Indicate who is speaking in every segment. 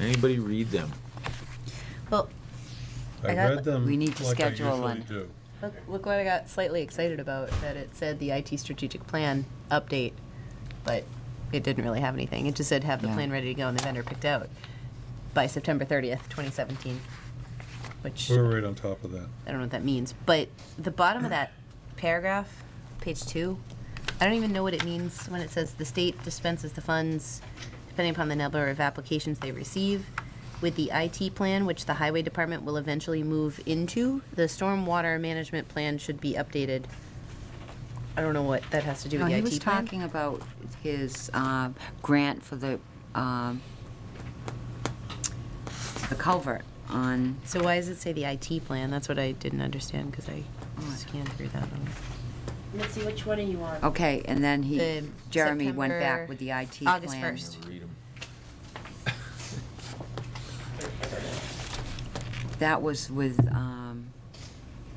Speaker 1: Anybody read them?
Speaker 2: Well,
Speaker 3: I
Speaker 2: I got-
Speaker 3: read them
Speaker 4: We need to
Speaker 3: like I
Speaker 4: schedule
Speaker 3: usually
Speaker 4: one.
Speaker 3: do.
Speaker 2: look, look what I got slightly excited about, that it said the IT strategic plan update, but it didn't really have anything. It just said have the
Speaker 4: Yeah.
Speaker 2: plan ready to go and the vendor picked out by September 30th, 2017, which
Speaker 3: We were right on top of that.
Speaker 2: I don't know what that means, but the bottom of that paragraph, page two, I don't even know what it means when it says the state dispenses the funds depending upon the number of applications they receive. With the IT plan, which the highway department will eventually move into, the stormwater management plan should be updated. I don't know what that has to do
Speaker 4: No,
Speaker 2: with the
Speaker 4: he
Speaker 2: IT plan.
Speaker 4: was talking about his uh, grant for the, um, the culvert on,
Speaker 2: So why does it say the IT plan? That's what I didn't understand, because I
Speaker 4: Oh
Speaker 2: scanned through that. on-
Speaker 5: Let's see which one are you on?
Speaker 4: okay, and then he,
Speaker 2: The
Speaker 4: Jeremy went
Speaker 2: September-
Speaker 4: back with the IT plan.
Speaker 2: August 1st.
Speaker 1: Read them.
Speaker 4: That was with, um,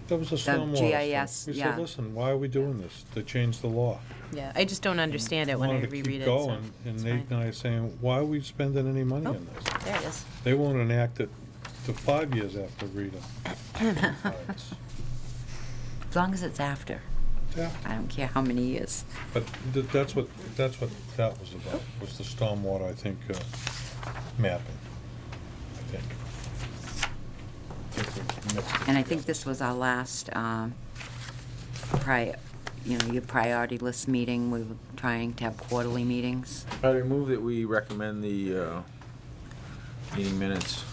Speaker 3: That was a stormwater
Speaker 4: GIS,
Speaker 3: stuff. We
Speaker 4: yeah.
Speaker 3: said, listen, why are we doing this? They changed the law.
Speaker 2: Yeah, I just don't understand it when I
Speaker 3: Wanted to
Speaker 2: reread
Speaker 3: keep
Speaker 2: it, so
Speaker 3: going, and
Speaker 2: it's fine.
Speaker 3: Nate and I are saying, why are we spending any money
Speaker 2: Oh.
Speaker 3: on this?
Speaker 2: There it is.
Speaker 3: They won't enact it till five years after Rita. retires.
Speaker 4: as long as it's after.
Speaker 3: Yeah,
Speaker 4: I don't care how many years.
Speaker 3: But th- that's what, that's what that was about, was the stormwater, I think, uh, mapping, I think. I think we mixed it
Speaker 4: And I
Speaker 3: together.
Speaker 4: think this was our last, um, pri, you know, your priority list meeting. We were trying to have quarterly meetings.
Speaker 1: I remove that we recommend the uh, meeting minutes.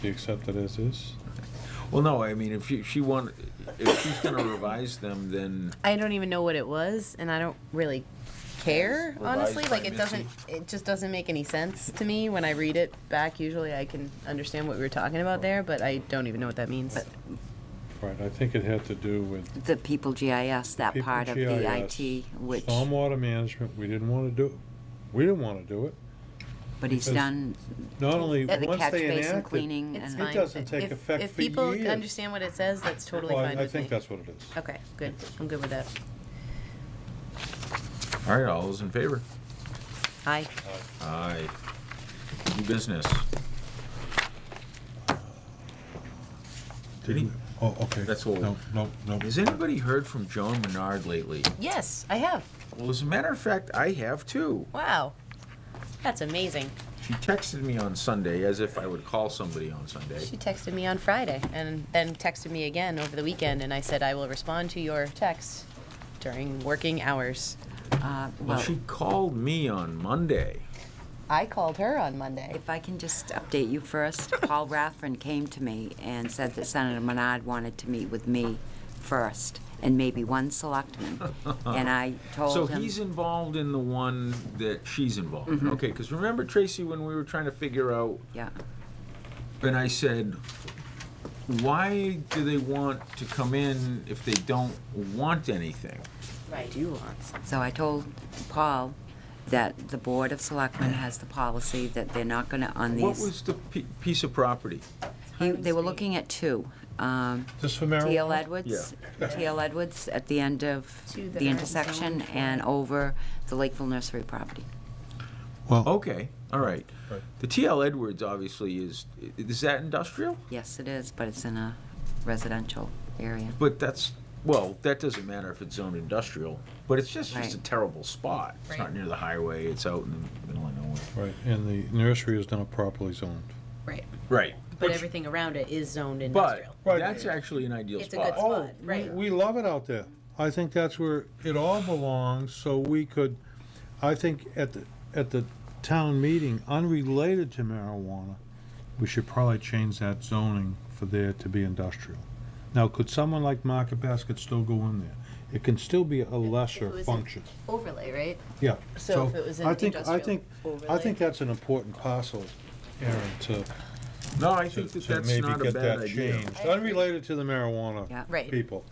Speaker 3: Do you accept it as is?
Speaker 1: Well, no, I mean, if you- she want, if she's gonna revise them, then
Speaker 2: I don't even know what it was, and I don't really care,
Speaker 1: Revised
Speaker 2: honestly.
Speaker 1: by
Speaker 2: Like, it
Speaker 1: Missy.
Speaker 2: doesn't, it just doesn't make any sense to me. When I read it back, usually I can understand what we were talking about there, but I don't even know what that means.
Speaker 3: Right, I think it had to do with
Speaker 4: The People GIS, that
Speaker 3: People
Speaker 4: part of the
Speaker 3: GIS,
Speaker 4: IT, which,
Speaker 3: Stormwater management, we didn't wanna do, we didn't wanna do it.
Speaker 4: but he's
Speaker 3: because
Speaker 4: done
Speaker 3: Not only,
Speaker 4: uh, the
Speaker 3: once
Speaker 4: catch
Speaker 3: they
Speaker 4: basin
Speaker 3: enact it.
Speaker 4: cleaning
Speaker 2: It's
Speaker 4: and.
Speaker 2: fine.
Speaker 3: doesn't take
Speaker 2: If-
Speaker 3: effect
Speaker 2: If
Speaker 3: for
Speaker 2: people
Speaker 3: years.
Speaker 2: understand what it says, that's totally
Speaker 3: Well, I-
Speaker 2: fine
Speaker 3: I
Speaker 2: with
Speaker 3: think
Speaker 2: me.
Speaker 3: that's what it is.
Speaker 2: Okay, good. I'm good with that.
Speaker 1: All right, all those in favor?
Speaker 2: Aye.
Speaker 1: Aye. New business. Did he-
Speaker 3: Oh, okay.
Speaker 1: That's all.
Speaker 3: No, no, no.
Speaker 1: Has anybody heard from Joan Menard lately?
Speaker 2: Yes, I have.
Speaker 1: Well, as a matter of fact, I have too.
Speaker 2: Wow. That's amazing.
Speaker 1: She texted me on Sunday as if I would call somebody on Sunday.
Speaker 2: She texted me on Friday and then texted me again over the weekend, and I said, I will respond to your text during working hours.
Speaker 4: uh,
Speaker 1: Well,
Speaker 4: Well,
Speaker 1: she called me on Monday.
Speaker 2: I called her on Monday.
Speaker 4: if I can just update you first, Paul Rathran came to me and said that Senator Menard wanted to meet with me first, and maybe one selectman. And I told
Speaker 1: So
Speaker 4: him. Mm-hmm.
Speaker 1: he's involved in the one that she's involved in. Okay, because remember, Tracy, when we were trying to figure out,
Speaker 4: Yeah,
Speaker 1: and I said, why do they want to come in if they don't want anything?
Speaker 2: I do want some.
Speaker 4: so I told Paul that the Board of Selectmen has the policy that they're not gonna, on
Speaker 1: What
Speaker 4: these,
Speaker 1: was the pi- piece of property?
Speaker 4: he- they were looking at two. um,
Speaker 3: Just for marijuana?
Speaker 4: TL Edwards, TL Edwards at the end of
Speaker 2: Two that
Speaker 4: the
Speaker 2: are
Speaker 4: intersection
Speaker 2: zoned for-
Speaker 4: and over the Lakeville Nursery property.
Speaker 3: Well,
Speaker 1: Okay, all right.
Speaker 3: Right.
Speaker 1: The TL Edwards obviously is, i- is that industrial?
Speaker 4: Yes, it is, but it's in a residential area.
Speaker 1: But that's, well, that doesn't matter if it's zoned industrial, but it's just, just a
Speaker 4: Right.
Speaker 1: terrible spot. It's not
Speaker 2: Right.
Speaker 1: near the highway, it's out in the middle of nowhere.
Speaker 3: right, and the nursery is not properly zoned.
Speaker 2: Right.
Speaker 1: Right.
Speaker 2: But everything around it is zoned
Speaker 1: But
Speaker 2: industrial.
Speaker 3: Right.
Speaker 1: that's actually an ideal
Speaker 2: It's a good
Speaker 1: spot.
Speaker 2: spot,
Speaker 3: we-
Speaker 2: right.
Speaker 3: Oh, We love it out there. I think that's where it all belongs, so we could, I think at the, at the town meeting, unrelated to marijuana, we should probably change that zoning for there to be industrial. Now, could someone like Market Basket still go in there? It can still be a lesser
Speaker 2: was in-
Speaker 3: function.
Speaker 2: Overlay, right?
Speaker 3: Yeah.
Speaker 2: So if it was an
Speaker 3: I think- I
Speaker 2: industrial
Speaker 3: think, I
Speaker 2: overlay.
Speaker 3: think that's an important parcel, Aaron, to,
Speaker 1: No, I
Speaker 3: to
Speaker 1: think that
Speaker 3: to
Speaker 1: that's
Speaker 3: maybe
Speaker 1: not a
Speaker 3: get
Speaker 1: bad
Speaker 3: that
Speaker 1: idea.
Speaker 3: changed. Unrelated to the
Speaker 4: Yeah.
Speaker 2: Right.
Speaker 3: marijuana people.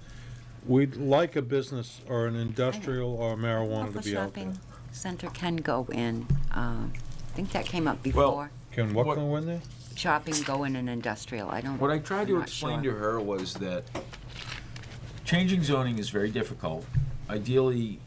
Speaker 3: We'd like a business or an industrial or marijuana to
Speaker 4: Upper
Speaker 3: be out there.
Speaker 4: Shopping Center can go in, um, I think that came up
Speaker 1: Well-
Speaker 4: before.
Speaker 3: Can what
Speaker 1: What-
Speaker 3: go in there?
Speaker 4: Shopping go in an industrial, I don't.
Speaker 1: What I tried to
Speaker 4: I'm not
Speaker 1: explain
Speaker 4: sure.
Speaker 1: to her was that changing zoning is very difficult. Ideally,